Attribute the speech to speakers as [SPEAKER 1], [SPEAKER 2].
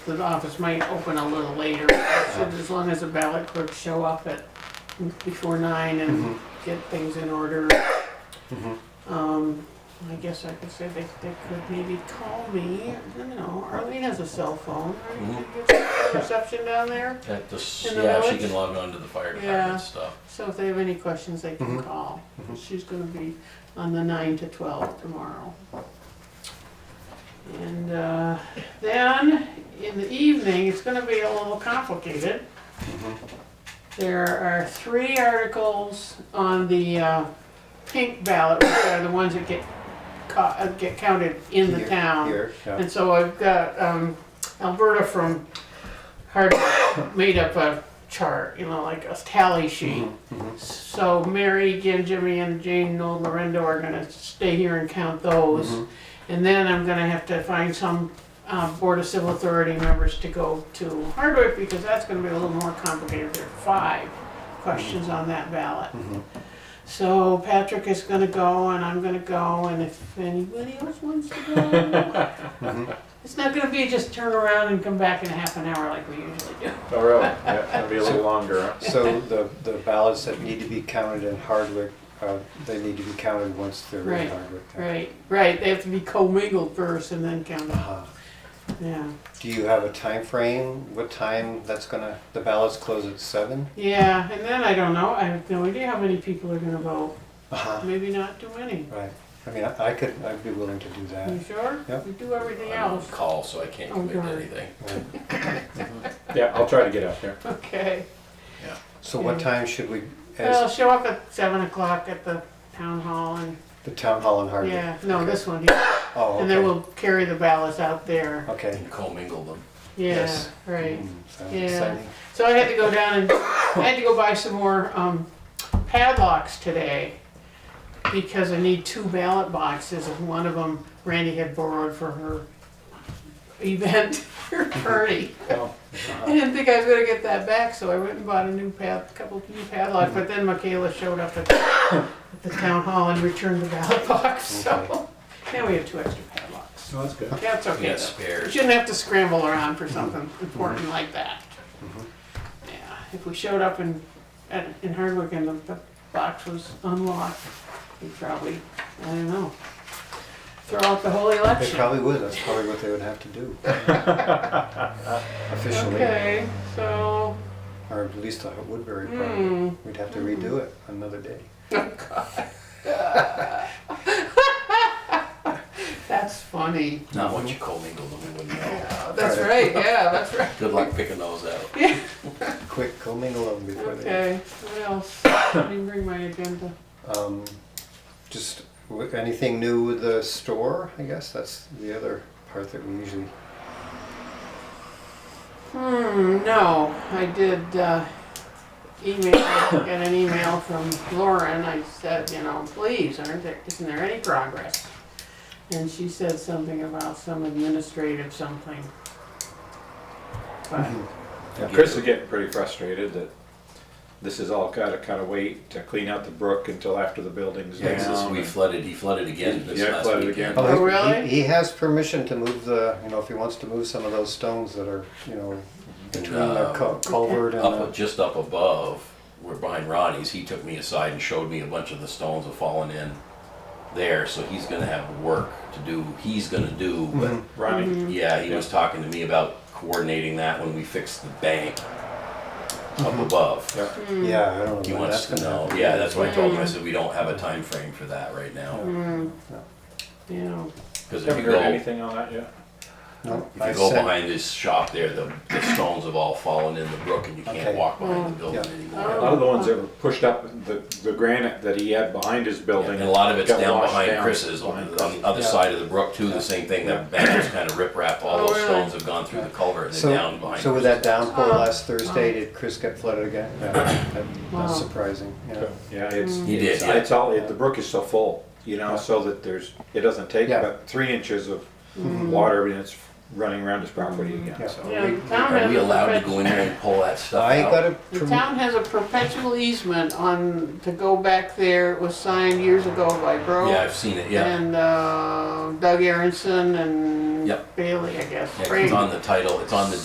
[SPEAKER 1] the office might open a little later, so as long as the ballot clerks show up at, before nine
[SPEAKER 2] Mm-hmm,
[SPEAKER 1] and get things in order. Um, I guess I could say they, they could maybe call me, you know, Arlene has a cell phone, right? Did you get Reception down there,
[SPEAKER 3] At this,
[SPEAKER 1] In the
[SPEAKER 3] yeah, she
[SPEAKER 1] village?
[SPEAKER 3] can log on to the fire
[SPEAKER 1] Yeah.
[SPEAKER 3] department stuff.
[SPEAKER 1] so if they have any questions, they can call. She's gonna be on the nine to twelve tomorrow. And, uh, then, in the evening, it's gonna be a little complicated. There are three articles on the, uh, pink ballot, which are the ones that get ca- uh, get counted in the
[SPEAKER 2] Here,
[SPEAKER 1] town.
[SPEAKER 2] Here, yeah.
[SPEAKER 1] And so I've got um, Alberta from Hardwick made up a chart, you know, like a tally sheet.
[SPEAKER 2] Mm-hmm,
[SPEAKER 1] So Mary, again, Jimmy, and Jane, Noel, Lorendo are gonna stay here and count those.
[SPEAKER 2] Mm-hmm.
[SPEAKER 1] And then I'm gonna have to find some um, Board of Civil Authority members to go to Hardwick because that's gonna be a little more complicated. There are five questions on that ballot.
[SPEAKER 2] mm-hmm.
[SPEAKER 1] So Patrick is gonna go and I'm gonna go and if anybody else wants to go. It's not gonna be just turn around and come back in a half an hour like we usually do.
[SPEAKER 4] Oh, really? Yeah, it'll be a little longer, huh?
[SPEAKER 2] So the, the ballots that need to be counted in Hardwick, uh, they need to be counted once they're
[SPEAKER 1] Right,
[SPEAKER 2] in Hardwick.
[SPEAKER 1] Right, right, they have to be commingled first and then counted,
[SPEAKER 2] Uh,
[SPEAKER 1] yeah.
[SPEAKER 2] Do you have a time frame? What time that's gonna, the ballots close at seven?
[SPEAKER 1] Yeah, and then I don't know, I have no idea how many people are gonna vote,
[SPEAKER 2] Uh-huh.
[SPEAKER 1] maybe not too many.
[SPEAKER 2] Right. I mean, I I could, I'd be willing to do that.
[SPEAKER 1] You sure?
[SPEAKER 2] Yep.
[SPEAKER 1] We do everything
[SPEAKER 3] I'm on
[SPEAKER 1] else,
[SPEAKER 3] call, so I can't
[SPEAKER 1] Oh,
[SPEAKER 3] commit to
[SPEAKER 1] God.
[SPEAKER 3] anything.
[SPEAKER 2] Right.
[SPEAKER 4] Yeah, I'll try to get out there.
[SPEAKER 1] okay.
[SPEAKER 2] So what time should we,
[SPEAKER 1] Well,
[SPEAKER 2] as
[SPEAKER 1] show up at seven o'clock at the town hall and,
[SPEAKER 2] the town hall in Hardwick?
[SPEAKER 1] yeah, no, this one here.
[SPEAKER 2] Oh,
[SPEAKER 1] And then
[SPEAKER 2] okay.
[SPEAKER 1] we'll carry the ballots out there,
[SPEAKER 2] Okay.
[SPEAKER 3] And commingle them.
[SPEAKER 1] yeah,
[SPEAKER 2] Yes.
[SPEAKER 1] right.
[SPEAKER 2] Mm, sounds
[SPEAKER 1] Yeah.
[SPEAKER 2] exciting.
[SPEAKER 1] So I had to go down and I had to go buy some more um, padlocks today because I need two ballot boxes and one of them Randy had borrowed for her event, her party.
[SPEAKER 4] Oh,
[SPEAKER 1] I didn't think I was gonna get that back, so I went and bought a new pad, couple new padlocks, but then Michaela showed up at at the town hall and returned the ballot box, so now we have two extra padlocks.
[SPEAKER 4] no, that's good.
[SPEAKER 1] That's
[SPEAKER 3] We
[SPEAKER 1] okay
[SPEAKER 3] got
[SPEAKER 1] though. You
[SPEAKER 3] spares.
[SPEAKER 1] shouldn't have to scramble around for something important like that. Yeah, if we showed up in, at, in Hardwick and the, the box was unlocked, we'd probably, I don't know, throw out the whole
[SPEAKER 2] They
[SPEAKER 1] election.
[SPEAKER 2] probably would, that's probably what they would have to do. Officially,
[SPEAKER 1] Okay, so,
[SPEAKER 2] or at least at Woodbury probably.
[SPEAKER 1] hmm,
[SPEAKER 2] We'd have to redo it another day.
[SPEAKER 1] that's funny.
[SPEAKER 3] Not once you commingle them, you wouldn't know.
[SPEAKER 1] Yeah, That's right, yeah, that's right.
[SPEAKER 3] Good luck picking those out.
[SPEAKER 2] Quick commingle them before they.
[SPEAKER 1] Okay, what else? I didn't bring my agenda.
[SPEAKER 2] Um, just w- anything new with the store? I guess that's the other part that we usually.
[SPEAKER 1] Hmm, no, I did, uh, email, got an email from Lauren, I said, you know, please, aren't there, isn't there any progress? And she said something about some administrative something. But,
[SPEAKER 3] Mm-hmm.
[SPEAKER 4] Yeah, Chris is getting pretty frustrated that this has all gotta kinda wait to clean out the brook until after the building's
[SPEAKER 2] Yeah,
[SPEAKER 4] down.
[SPEAKER 3] It's just we flooded, he flooded again this
[SPEAKER 4] Yeah,
[SPEAKER 3] last
[SPEAKER 4] flooded
[SPEAKER 3] weekend.
[SPEAKER 4] again.
[SPEAKER 1] Oh,
[SPEAKER 2] he-
[SPEAKER 1] really?
[SPEAKER 2] He, he has permission to move the, you know, if he wants to move some of those stones that are, you know, between the
[SPEAKER 3] Uh,
[SPEAKER 2] cul- culvert and.
[SPEAKER 3] Up,
[SPEAKER 2] the-
[SPEAKER 3] just up above, we're behind Ronnie's, he took me aside and showed me a bunch of the stones have fallen in there, so he's gonna have work to do, he's gonna do, but
[SPEAKER 4] Mm-hmm. Ronnie,
[SPEAKER 3] Yeah, he was talking to me about coordinating that when we fixed the bank
[SPEAKER 4] Mm-hmm.
[SPEAKER 3] up above.
[SPEAKER 4] yeah,
[SPEAKER 2] Yeah, I don't
[SPEAKER 3] He
[SPEAKER 2] know. when
[SPEAKER 3] wants
[SPEAKER 2] that's
[SPEAKER 3] to
[SPEAKER 2] gonna
[SPEAKER 3] know,
[SPEAKER 2] happen.
[SPEAKER 3] yeah, that's why I told him, I said, we don't have a time frame for that right now.
[SPEAKER 1] you know,
[SPEAKER 3] Because if
[SPEAKER 4] haven't
[SPEAKER 3] you
[SPEAKER 4] heard
[SPEAKER 3] go,
[SPEAKER 4] anything on that yet?
[SPEAKER 2] No,
[SPEAKER 3] if
[SPEAKER 2] I
[SPEAKER 3] you go
[SPEAKER 2] sent-
[SPEAKER 3] behind his shop there, the, the stones have all fallen in the brook and you can't
[SPEAKER 2] Okay.
[SPEAKER 3] walk behind
[SPEAKER 1] Mm.
[SPEAKER 3] the building
[SPEAKER 2] Yeah. Oh.
[SPEAKER 4] A
[SPEAKER 3] anymore.
[SPEAKER 4] lot of the ones that were pushed up, the, the granite that he had behind his building.
[SPEAKER 3] And a lot of it's
[SPEAKER 4] got
[SPEAKER 3] down
[SPEAKER 4] washed
[SPEAKER 3] behind
[SPEAKER 4] down
[SPEAKER 3] Chris's,
[SPEAKER 4] behind
[SPEAKER 3] on the on
[SPEAKER 4] Chris's.
[SPEAKER 3] the other
[SPEAKER 2] Yeah.
[SPEAKER 3] side of the brook too, the same thing, that bank was kind of riprap, all
[SPEAKER 1] Oh,
[SPEAKER 3] those
[SPEAKER 1] really?
[SPEAKER 3] stones have gone through the culvert and
[SPEAKER 2] So,
[SPEAKER 3] they're down behind.
[SPEAKER 2] so with
[SPEAKER 3] Chris's.
[SPEAKER 2] that downpour
[SPEAKER 1] Oh.
[SPEAKER 2] last Thursday, did Chris get flooded again? Yeah, that-
[SPEAKER 1] Wow.
[SPEAKER 2] That's surprising, yeah.
[SPEAKER 4] Yeah, it's.
[SPEAKER 3] He did,
[SPEAKER 4] it's-
[SPEAKER 3] yeah.
[SPEAKER 4] It's all, the brook is so full, you know, so that there's, it doesn't take
[SPEAKER 2] Yeah.
[SPEAKER 4] but three inches of
[SPEAKER 3] Mm-hmm.
[SPEAKER 4] water and it's running around his property
[SPEAKER 2] Yeah.
[SPEAKER 4] again, so.
[SPEAKER 1] you know, the town
[SPEAKER 3] Are
[SPEAKER 1] has
[SPEAKER 3] we
[SPEAKER 1] a
[SPEAKER 3] allowed to
[SPEAKER 1] perpetu-
[SPEAKER 3] go in there and pull that stuff out?
[SPEAKER 2] I got a,
[SPEAKER 1] The
[SPEAKER 2] perm-
[SPEAKER 1] town has a perpetual easement on, to go back there, it was signed years ago by Bro.
[SPEAKER 3] Yeah, I've seen it, yeah.
[SPEAKER 1] And, uh, Doug Aronson and and
[SPEAKER 3] Yep.
[SPEAKER 1] Bailey, I guess.
[SPEAKER 3] Yeah, 'cause
[SPEAKER 1] Frank.
[SPEAKER 3] it's on the title, it's on the